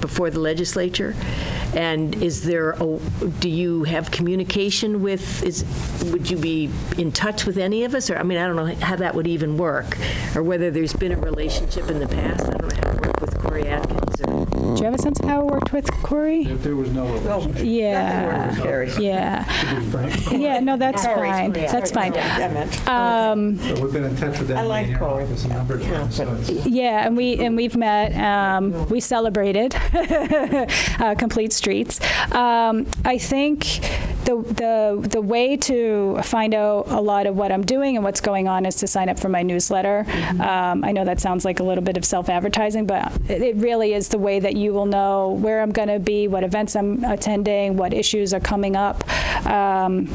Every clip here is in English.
before the legislature? And is there, a- do you have communication with, is, would you be in touch with any of us? Or, I mean, I don't know how that would even work, or whether there's been a relationship in the past. I don't know how to work with Corey Atkins or. Do you have a sense of how it worked with Corey? There was no relationship. Yeah. Yeah. Yeah, no, that's fine. That's fine. Um, So We've been in touch with I them like in your Corey. office a number of times, so it's- Yeah, and we and we've met. Um, we celebrated uh, complete streets. Um, I think the the the way to find out a lot of what I'm doing and what's going on is to sign up for my newsletter. Um, I know that sounds like a little bit of self-advertising, but it, it really is the way that you will know where I'm going to be, what events I'm attending, what issues are coming up. Um,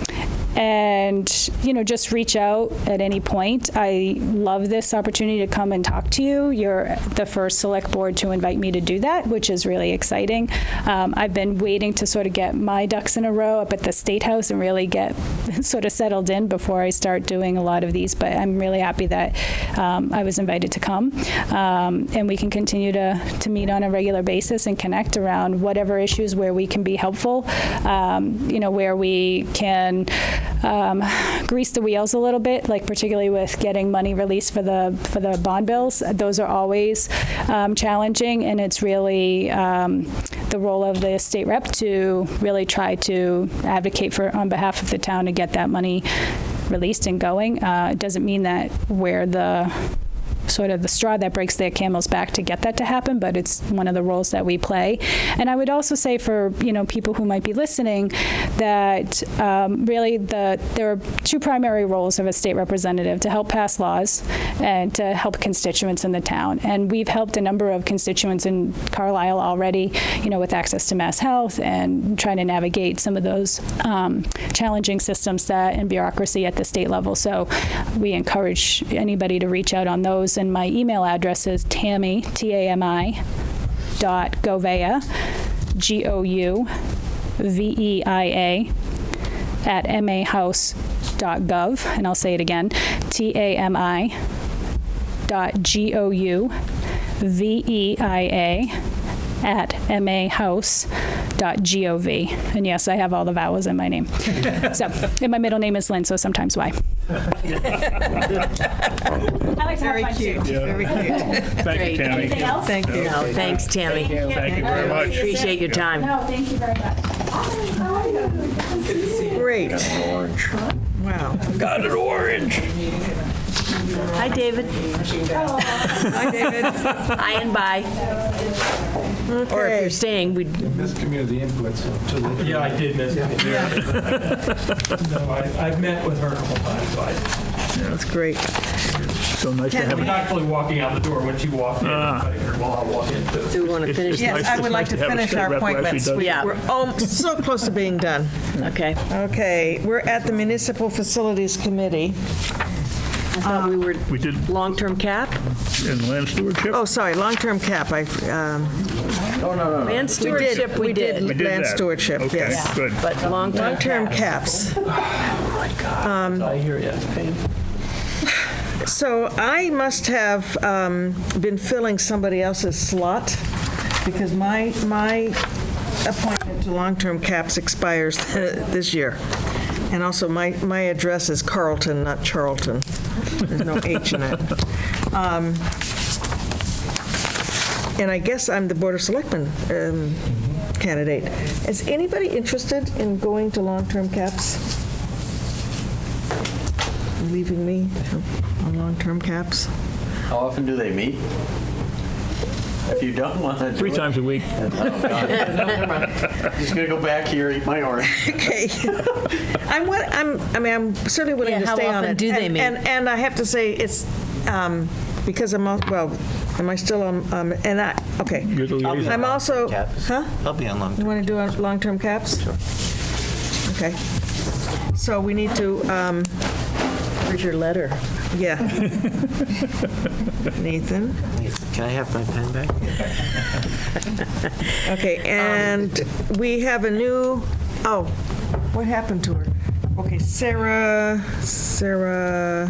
and you know just reach out at any point i love this opportunity to come and talk to you you're the first select board to invite me to do that which is really exciting um, i've been waiting to sort of get my ducks in a row up at the state house and really get sort of settled in before i start doing a lot of these but i'm really happy that um, i was invited to come um, and we can continue to, to meet on a regular basis and connect around whatever issues where we can be helpful um, you know where we can um, grease the wheels a little bit, like particularly with getting money released for the for the bond bills. Those are always um, challenging, and it's really um, the role of the state rep to really try to advocate for on behalf of the town to get that money released and going. Uh, it doesn't mean that we're the sort of the straw that breaks their camel's back to get that to happen, but it's one of the roles that we play. And I would also say for you know people who might be listening that um, really the there are two primary roles of a state representative to help pass laws and to help constituents in the town. And we've helped a number of constituents in Carlisle already, you know, with access to mass health and trying to navigate some of those um, challenging systems that and bureaucracy at the state level. So we encourage anybody to reach out on those. And my email address is Tammy T A M I dot Govea G O U V E I A at mahouse.gov, and I'll say it again, T A M I dot G O U V E I A at mahouse.gov. And yes, I have all the vowels in my name. so, and my middle name is Lynn, so sometimes why. I like to have Very fun cute, too. very cute. Thank you, Tammy. Anything else? Thank you. No, thanks, Tammy. Thank you very much. Appreciate your time. No, thank you very much. Great. Wow. Hi, David. Hi, David. Hi and bye. Or if you're Okay. staying, we'd Missed community input, so too late. Yeah, I did miss it. No, I- I've met with her a couple times, so I- That's great. So nice to I was have, actually walking out the door when she walked in, I figured, well, I'll walk in too. do want to finish this. Yes, I would like to It's nice to have finish our a state rep who actually appointments. does We- it. We're al- so close to being done. Okay. Okay, we're at the Municipal Facilities Committee. I thought we were we did long-term cap. in land stewardship. Oh, sorry, long-term cap, I, um, Uh, Land stewardship, we did. We did land that. stewardship, Okay, yes. good. But long-term Long-term cap. caps. I hear you. Um, So I must have um, been filling somebody else's slot because my, my appointment to long-term caps expires this year. And also, my, my address is Carlton, not Charlton. There's no H in it. Um, And I guess I'm the Board of Selectmen um, candidate. Is anybody interested in going to long-term caps? Leaving me on long-term caps? How often do they meet? If you don't want to do Three it- times a week. Just gonna go back here, eat my orange. Okay. I'm, wi- I'm, I mean, I'm certainly willing Yeah, to how stay on it. often do they And- meet? And, and I have to say, it's, um, because I'm, al- well, am I still on, um, and I, okay. You're the liaison. I'm also, Caps. huh? I'll be on long. You want to do a- long-term caps? Okay. So we need to, um, Where's your letter? yeah. Nathan? Can I have my pen back? Um, Okay, and we have a new, oh, what happened to her? Okay, Sarah, Sarah,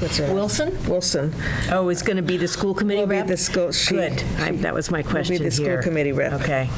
what's her? name? Wilson? Wilson. Oh, it's going to be the school committee Will be rep? the school- she- Good. I- That was my Be question here. the school committee rep. Okay.